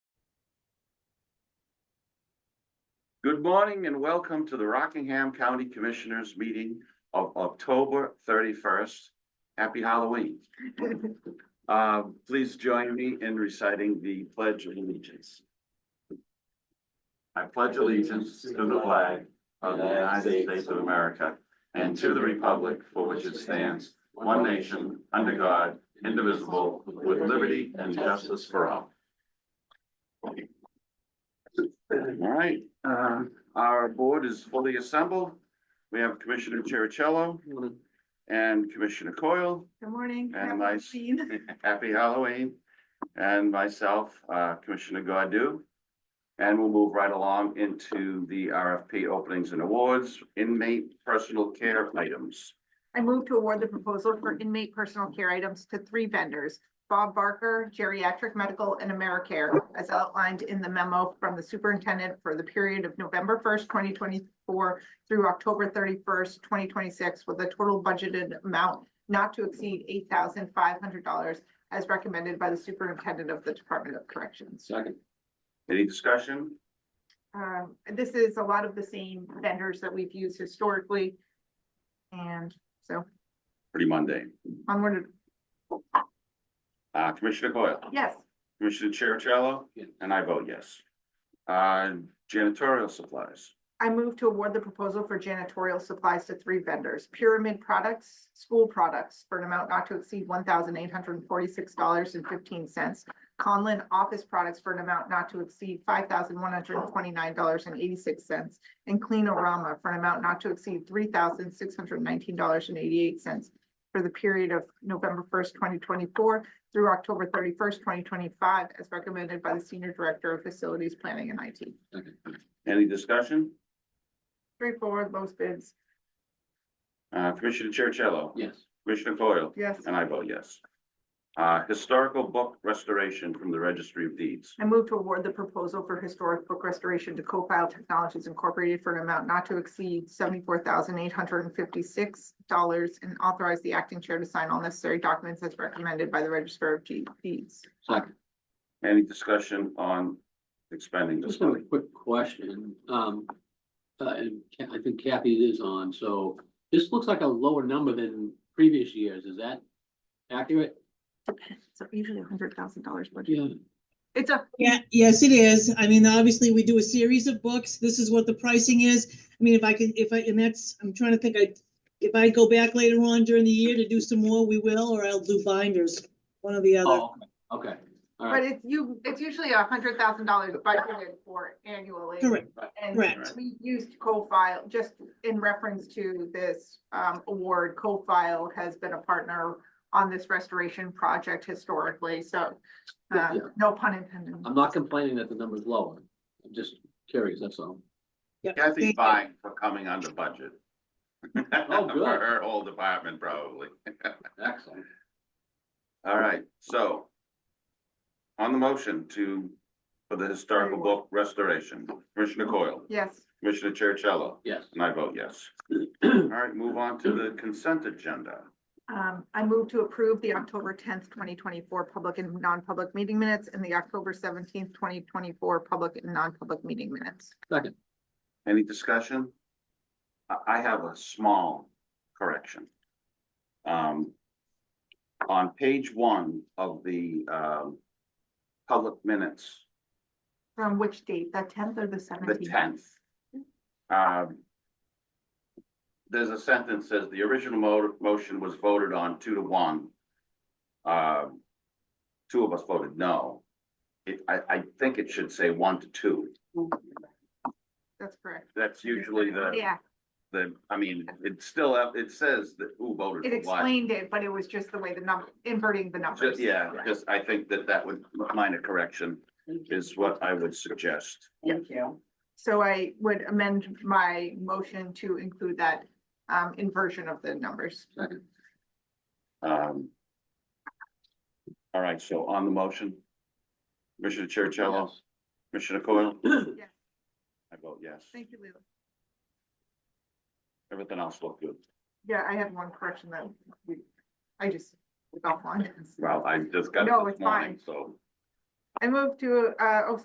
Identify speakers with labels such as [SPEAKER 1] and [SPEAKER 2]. [SPEAKER 1] Good morning and welcome to the Rockingham County Commissioners Meeting of October thirty-first. Happy Halloween. Uh, please join me in reciting the Pledge of Allegiance. I pledge allegiance to the flag of the United States of America and to the republic for which it stands, one nation, under God, indivisible, with liberty and justice for all. All right, uh, our board is fully assembled. We have Commissioner Cherichello and Commissioner Coyle.
[SPEAKER 2] Good morning.
[SPEAKER 1] And
[SPEAKER 2] Happy
[SPEAKER 1] nice-
[SPEAKER 2] Halloween.
[SPEAKER 1] Happy Halloween. And myself, uh, Commissioner Godu. And we'll move right along into the RFP openings and awards, inmate personal care items.
[SPEAKER 2] I move to award the proposal for inmate personal care items to three vendors, Bob Barker, Geriatric Medical, and AmeriCare, as outlined in the memo from the superintendent for the period of November first, twenty twenty-four through October thirty-first, twenty twenty-six, with a total budgeted amount not to exceed eight thousand five hundred dollars as recommended by the superintendent of the Department of Corrections.
[SPEAKER 1] Second. Any discussion?
[SPEAKER 2] Um, this is a lot of the same vendors that we've used historically. And so
[SPEAKER 1] Pretty mundane.
[SPEAKER 2] onward,
[SPEAKER 1] Uh, Commissioner Coyle?
[SPEAKER 2] yes,
[SPEAKER 1] Commissioner Cherichello?
[SPEAKER 3] Yes.
[SPEAKER 1] And I vote yes. Uh, janitorial supplies.
[SPEAKER 2] I move to award the proposal for janitorial supplies to three vendors, Pyramid Products, School Products, for an amount not to exceed one thousand eight hundred and forty-six dollars and fifteen cents. Conlin Office Products for an amount not to exceed five thousand one hundred and twenty-nine dollars and eighty-six cents. And Cleanorama for an amount not to exceed three thousand six hundred and nineteen dollars and eighty-eight cents for the period of November first, twenty twenty-four through October thirty-first, twenty twenty-five, as recommended by the Senior Director of Facilities Planning and IT.
[SPEAKER 1] Any discussion?
[SPEAKER 2] Straightforward, most bids,
[SPEAKER 1] Uh, Commissioner Cherichello?
[SPEAKER 3] Yes.
[SPEAKER 1] Commissioner Coyle?
[SPEAKER 2] yes.
[SPEAKER 1] And I vote yes. Uh, historical book restoration from the Registry of Deeds.
[SPEAKER 2] I move to award the proposal for historic book restoration to Copile Technologies Incorporated for an amount not to exceed seventy-four thousand eight hundred and fifty-six dollars and authorize the acting chair to sign all necessary documents as recommended by the Register of Ge- Deeds.
[SPEAKER 3] Second.
[SPEAKER 1] Any discussion on expending this
[SPEAKER 3] Just have a
[SPEAKER 1] money?
[SPEAKER 3] quick question. Um, uh, and Ca- I think Kathy is on, so this looks like a lower number than previous years. Is that accurate?
[SPEAKER 2] So usually a hundred thousand dollars budget.
[SPEAKER 3] Yeah.
[SPEAKER 2] It's a,
[SPEAKER 4] Yeah, yes, it is. I mean, obviously, we do a series of books. This is what the pricing is. I mean, if I could, if I, and that's, I'm trying to think, I, if I go back later on during the year to do some more, we will, or I'll do binders, one or the other.
[SPEAKER 3] Oh, okay. All
[SPEAKER 2] but
[SPEAKER 3] right.
[SPEAKER 2] it's you, it's usually a hundred thousand dollars budgeted for annually.
[SPEAKER 4] Correct,
[SPEAKER 2] And
[SPEAKER 4] correct.
[SPEAKER 2] We used co-file, just in reference to this um award, co-file has been a partner on this restoration project historically, so uh,
[SPEAKER 3] Yeah.
[SPEAKER 2] no pun intended.
[SPEAKER 3] I'm not complaining that the number's lower. I'm just curious, that's all.
[SPEAKER 1] Kathy's fine for coming under budget.
[SPEAKER 3] Oh, good.
[SPEAKER 1] For her whole department, probably.
[SPEAKER 3] Excellent.
[SPEAKER 1] All right, so on the motion to, for the historical book restoration, Commissioner Coyle,
[SPEAKER 2] Yes,
[SPEAKER 1] Commissioner Chercello,
[SPEAKER 3] Yes.
[SPEAKER 1] and I vote yes. All right, move on to the consent agenda.
[SPEAKER 2] um, I move to approve the October tenth, twenty twenty-four public and non-public meeting minutes and the October seventeenth, twenty twenty-four public and non-public meeting minutes.
[SPEAKER 3] Second.
[SPEAKER 1] Any discussion? I, I have a small correction. Um, on page one of the, um, public minutes,
[SPEAKER 2] From which date, the tenth or the
[SPEAKER 1] the
[SPEAKER 2] seventeenth?
[SPEAKER 1] tenth. Um, there's a sentence says the original mo- motion was voted on two to one. Um, two of us voted no. It, I, I think it should say one to two.
[SPEAKER 2] Oh, That's correct.
[SPEAKER 1] That's usually the.
[SPEAKER 2] Yeah,
[SPEAKER 1] The, I mean, it's still, up- it says that who voted
[SPEAKER 2] it
[SPEAKER 1] for what.
[SPEAKER 2] explained it, but it was just the way the number, inverting the numbers.
[SPEAKER 1] Just, yeah,
[SPEAKER 2] Correct.
[SPEAKER 1] just, I think that that would, minor correction is what I would suggest.
[SPEAKER 2] Thank you. So I would amend my motion to include that um inversion of the numbers.
[SPEAKER 3] Second.
[SPEAKER 1] Um. All right, so on the motion, Commissioner Chercello, Commissioner Coyle,
[SPEAKER 3] Yes.
[SPEAKER 1] I vote yes.
[SPEAKER 2] Thank you, Leila.
[SPEAKER 1] Everything else looked good.
[SPEAKER 2] Yeah, I had one correction that we- I just got one.
[SPEAKER 1] Well, I just got
[SPEAKER 2] No,
[SPEAKER 1] it this
[SPEAKER 2] it's fine.
[SPEAKER 1] morning, so.
[SPEAKER 2] I move to uh